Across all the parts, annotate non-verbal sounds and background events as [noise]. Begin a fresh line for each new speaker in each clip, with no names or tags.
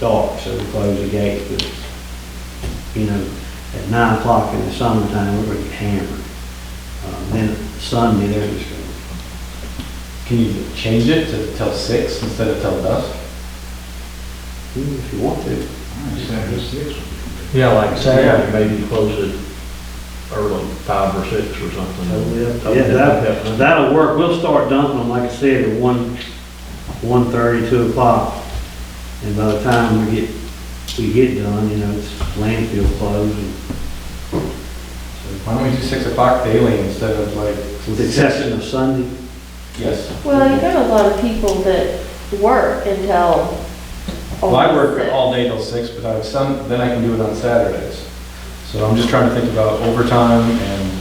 dark, so we close the gates, but, you know, at nine o'clock in the summertime, we're gonna get hammered. Um, Then Sunday, they're just gonna
Can you change it to till six instead of till dusk?
Mm, If you want to.
Yeah, like
Saturday.
Saturday, maybe close it early, five or six or something.
Totally up to you. Yeah, that, that'll work. We'll start dumping them, like I said, at one, one thirty, two o'clock. And by the time we get, we get done, you know, it's landfill closed and. so,
Why don't we do six o'clock daily instead of like?
With the exception of Sunday.
Yes.
Well, you got a lot of people that work until. Oh.
Well, I work all day till six, but I have some, then I can do it on Saturdays. So I'm just trying to think about overtime and,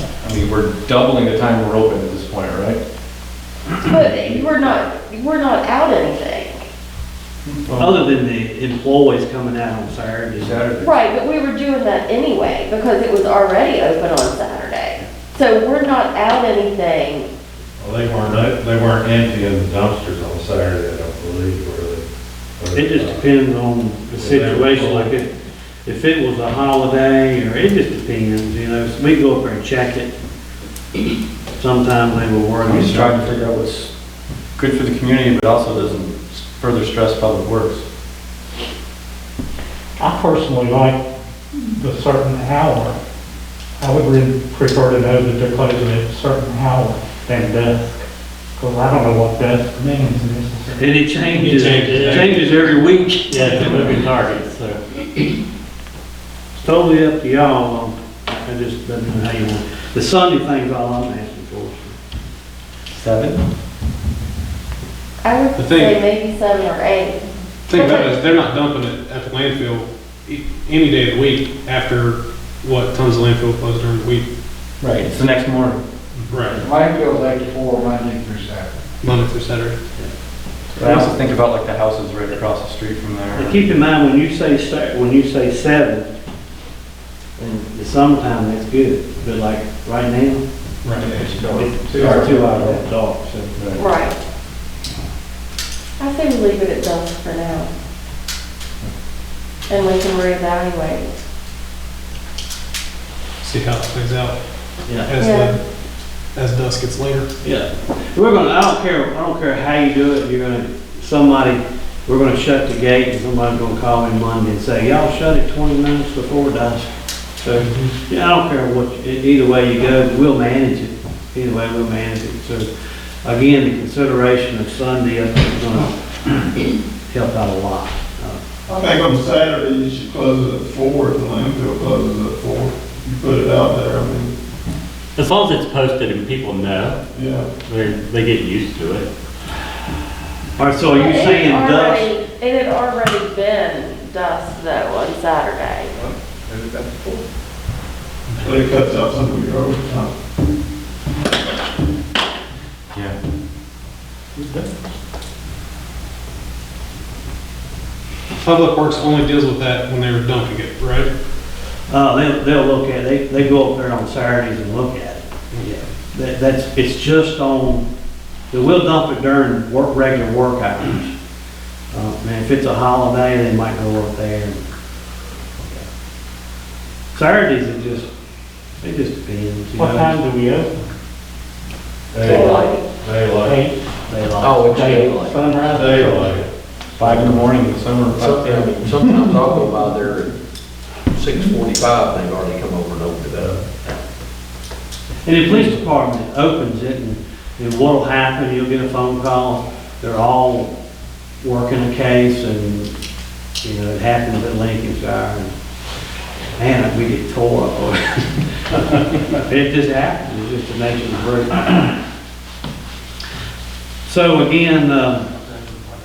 I mean, we're doubling the time we're open at this point, right?
But you we're not, you we're not out anything.
Other than the employees coming out on Saturday.
Saturday.
Right, but we were doing that anyway because it was already open on Saturday. So we're not out anything.
Well, they weren't, out- they weren't emptying the dumpsters on Saturday, I don't believe, were they?
It just depends on the situation, like if, if it was a holiday, or it just depends, you know, so we go up there and check it. Sometimes they will work.
I'm just trying to figure out what's good for the community, but also doesn't further stress public works.
I personally like the certain hour. I would really prefer to know that they're closing at a certain hour than dusk, because I don't know what dusk means necessarily.
And it changes,
It changes.
it changes every week.
Yeah, it's a moving target, so.
It's totally up to y'all, um, I just don't know how you want. The Sunday thing's all I'm asking for.
Seven?
I
The
would
thing-
say maybe seven or eight.
Thing about it is, they're not dumping it at the landfill e- any day of the week after what tons of landfill closed during the week.
Right, it's the next morning.
Right.
Landfill's eight to four, Monday through Saturday.
Monday through Saturday.
But I also think about like the houses right across the street from there.
Now, keep in mind, when you say, sa- when you say seven, in the summertime, that's good, but like, right now, it's two hours after dark, so.
Right. I say we leave it at dusk for now. And we can reevaluate.
See how it plays out
Yeah,
as
Yeah.
the, as dusk gets later.
yeah. We're gonna, I don't care, I don't care how you do it, you're gonna, somebody, we're gonna shut the gate, and somebody's gonna call in Monday and say, y'all shut it twenty minutes before dusk. So, yeah, I don't care what, e- either way you go, we'll manage it. Either way, we'll manage it. So, again, the consideration of Sunday, I think is gonna [clears throat] help out a lot. Uh,
I think on Saturday, you should close it at four, if the landfill closes at four. You put it out there, I mean,
As long as it's posted and people know,
yeah.
they, they get used to it.
All right, so are you
It had
saying dusk?
already- It had already been dusk though on Saturday.
But it cuts out some of your overtime.
Yeah.
Public Works only deals with that when they were dumping it, right?
Uh, they'll, they'll look at, they, they go up there on Saturdays and look at it. Yeah. That, that's, it's just on, we'll dump it during work, regular work hours. Uh, and if it's a holiday, they might go up there. Saturdays are just, it just depends, you
What
know,
time do we open?
Daylight, daylight,
Eight,
they like.
Oh, it's
eight,
daylight.
sunrise?
daylight.
Five in the morning in the summer. five-
Sometimes sometimes I'll go by there at six forty-five, they've already come over and opened it up.
And the police department opens it, and, and what'll happen, you'll get a phone call, they're all working a case, and, you know, it happens at Lincolnshire, and, man, we get tore up over it. [laughs] It just happens, it's just the nature of the breed. So again, uh,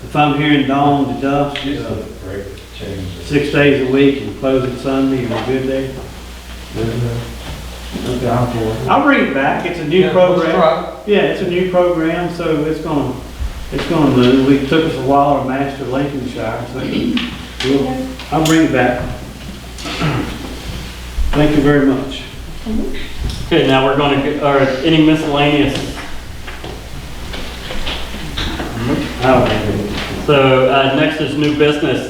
if I'm hearing dawn to dusk, uh,
Break, change.
six days a week and close it Sunday, are we good there? Okay, I'm for it. I'll bring it back, it's a new program. Yeah, it's a new program, so it's gonna, it's gonna move. We took us a while to master Lincolnshire, so we'll, I'll bring it back. Thank you very much.
Okay, now we're gonna, get- or any miscellaneous.
I don't have anything.
So, uh, next is new business.